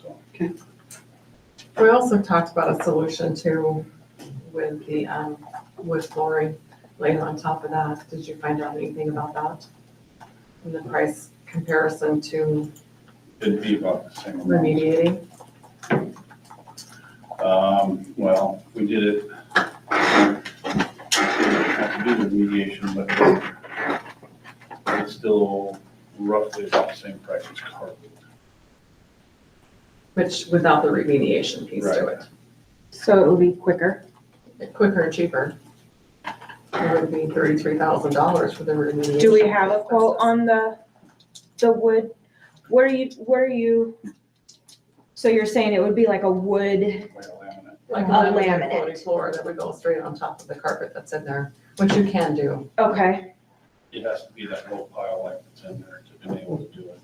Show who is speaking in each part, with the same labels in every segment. Speaker 1: so.
Speaker 2: We also talked about a solution too with the, um, wood flooring laying on top of that. Did you find out anything about that? And the price comparison to
Speaker 1: It'd be about the same amount.
Speaker 2: remediating?
Speaker 1: Um, well, we did it. Have to do the mediation, but it's still roughly about the same price as carpet.
Speaker 2: Which without the remediation piece to it,
Speaker 3: So it will be quicker.
Speaker 2: It's quicker and cheaper. It would be thirty-three thousand dollars for the remediation.
Speaker 3: Do we have a quote on the, the wood? What are you, what are you, so you're saying it would be like a wood,
Speaker 1: Like a laminate.
Speaker 2: Like a
Speaker 3: A
Speaker 2: laminate
Speaker 3: laminate.
Speaker 2: floating floor that would go straight on top of the carpet that's in there, which you can do.
Speaker 3: okay,
Speaker 1: It has to be that low pile like that's in there to be able to do it.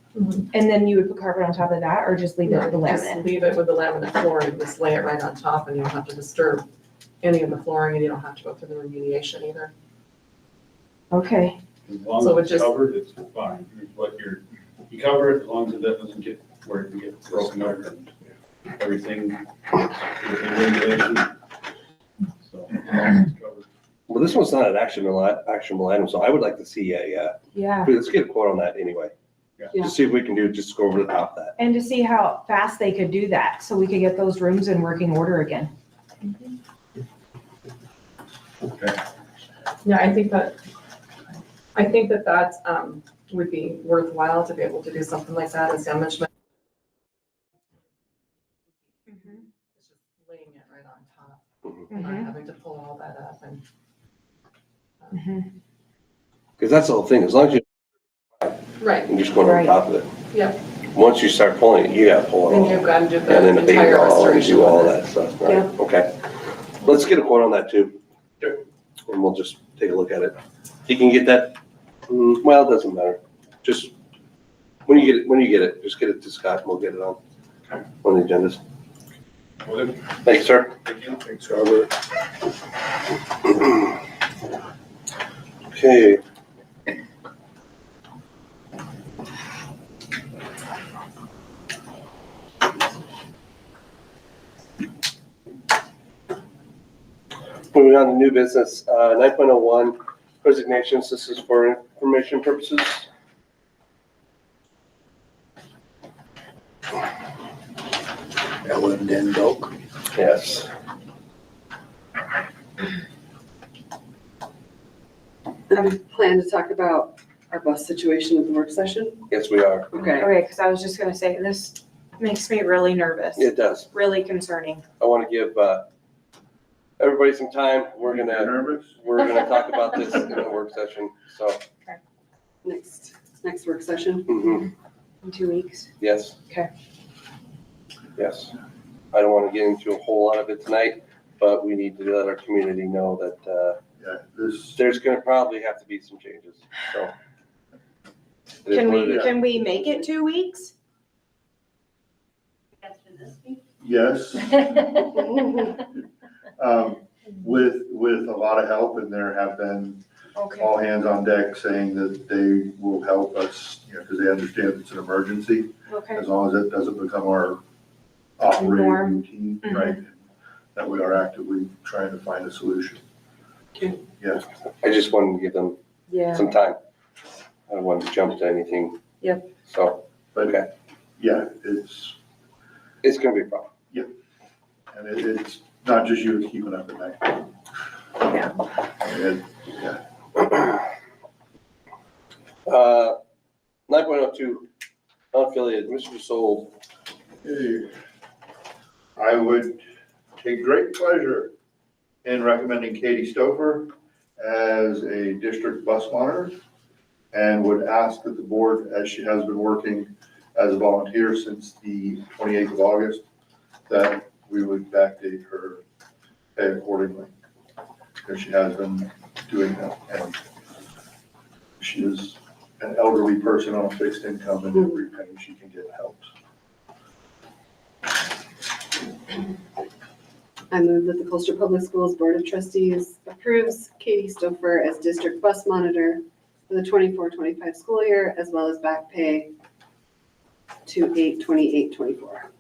Speaker 3: and then you would put carpet on top of that or just leave it with the
Speaker 2: Just
Speaker 3: laminate?
Speaker 2: Leave it with the laminate flooring, just lay it right on top and you don't have to disturb any of the flooring and you don't have to go through the remediation either.
Speaker 3: Okay,
Speaker 1: As long
Speaker 2: So it
Speaker 1: as it's
Speaker 2: just-
Speaker 1: covered, it's fine. Here's what you're, you cover it, as long as it doesn't get where it can get broken up and everything, within regulation. So, as long as it's covered.
Speaker 4: Well, this one's not an actionable, i- actionable item, so I would like to see a, uh,
Speaker 3: yeah.
Speaker 4: let's get a quote on that anyway.
Speaker 1: Yeah.
Speaker 4: Just see if we can do, just go over the top of that.
Speaker 3: And to see how fast they could do that, so we could get those rooms in working order again.
Speaker 2: Yeah, I think that, I think that that, um, would be worthwhile to be able to do something like that as damage. ma- It's just Laying it right on top,
Speaker 3: Mm-hmm.
Speaker 2: not having to pull all that up and.
Speaker 3: Mhm.
Speaker 4: Because that's the whole thing, as long as you-
Speaker 2: Right,
Speaker 4: you're just going over
Speaker 3: Right.
Speaker 4: the top of it.
Speaker 2: Yep.
Speaker 4: Once you start pulling it, you gotta pull it
Speaker 2: then
Speaker 4: all.
Speaker 2: you've got to do
Speaker 4: And
Speaker 2: the
Speaker 4: then abate it
Speaker 2: entire
Speaker 4: all and
Speaker 2: restoration.
Speaker 4: do all
Speaker 2: of it.
Speaker 4: that stuff, right? Okay. Let's get a quote on that too.
Speaker 1: Sure.
Speaker 4: And we'll just take a look at it. You can get that, mm, well, it doesn't matter. Just, when you get it, when you get it, just get it to Scott and we'll get it on,
Speaker 1: Okay.
Speaker 4: on the agendas.
Speaker 1: Well, then,
Speaker 4: Thanks, sir.
Speaker 1: thank you. Thanks,
Speaker 4: Okay. Moving on to new business, nine point oh one, resignations, this is for information purposes.
Speaker 5: Ellen Dendok.
Speaker 4: Yes.
Speaker 6: And we plan to talk about our bus situation at the work session?
Speaker 4: Yes, we are.
Speaker 6: Okay.
Speaker 3: Mm-hmm. Okay, because I was just gonna say, this makes me really nervous,
Speaker 4: It does.
Speaker 3: really concerning.
Speaker 4: I want to give, uh, everybody some time. We're gonna,
Speaker 1: Nervous?
Speaker 4: we're gonna talk about this in a work session, so.
Speaker 6: Next, next work session?
Speaker 4: mhm.
Speaker 3: In two weeks.
Speaker 4: Yes.
Speaker 3: Okay.
Speaker 4: Yes. I don't want to get into a whole lot of it tonight, but we need to let our community know that uh,
Speaker 5: Yeah, this,
Speaker 4: there's going to probably have to be some changes, so. It is
Speaker 3: Can
Speaker 4: what it
Speaker 3: we,
Speaker 4: is.
Speaker 3: can we make it two weeks?
Speaker 7: That's for this week?
Speaker 5: yes, um, with, with a lot of help and there have been
Speaker 3: Okay.
Speaker 5: all hands on deck saying that they will help us, you know, because they understand it's an emergency.
Speaker 3: Okay,
Speaker 5: As long as it doesn't become our operating
Speaker 3: Norm.
Speaker 5: routine, right? That we are actively trying to find a solution.
Speaker 4: I just wanted to give them
Speaker 3: yeah.
Speaker 4: some time. I don't want to jump to anything.
Speaker 6: Yep.
Speaker 4: So Okay.
Speaker 5: But, yeah, it's,
Speaker 4: it's going to be a problem.
Speaker 5: and it, it's not just you, it's keeping up at night. Yeah. yeah.
Speaker 4: Uh, 9.02, unaffiliated, Mr. Sold.
Speaker 5: I would take great pleasure in recommending Katie Stover as a district bus monitor and would ask that the board, as she has been working as a volunteer since the 28th of August, that we would backdate her pay accordingly. Because she has been doing that. and She is an elderly person on a fixed income and every penny she can get helps.
Speaker 6: I move that the Colchester Public Schools Board of Trustees approves Katie Stouffer as district bus monitor for the 24-25 school year, as well as back pay to eight twenty-eight twenty-four.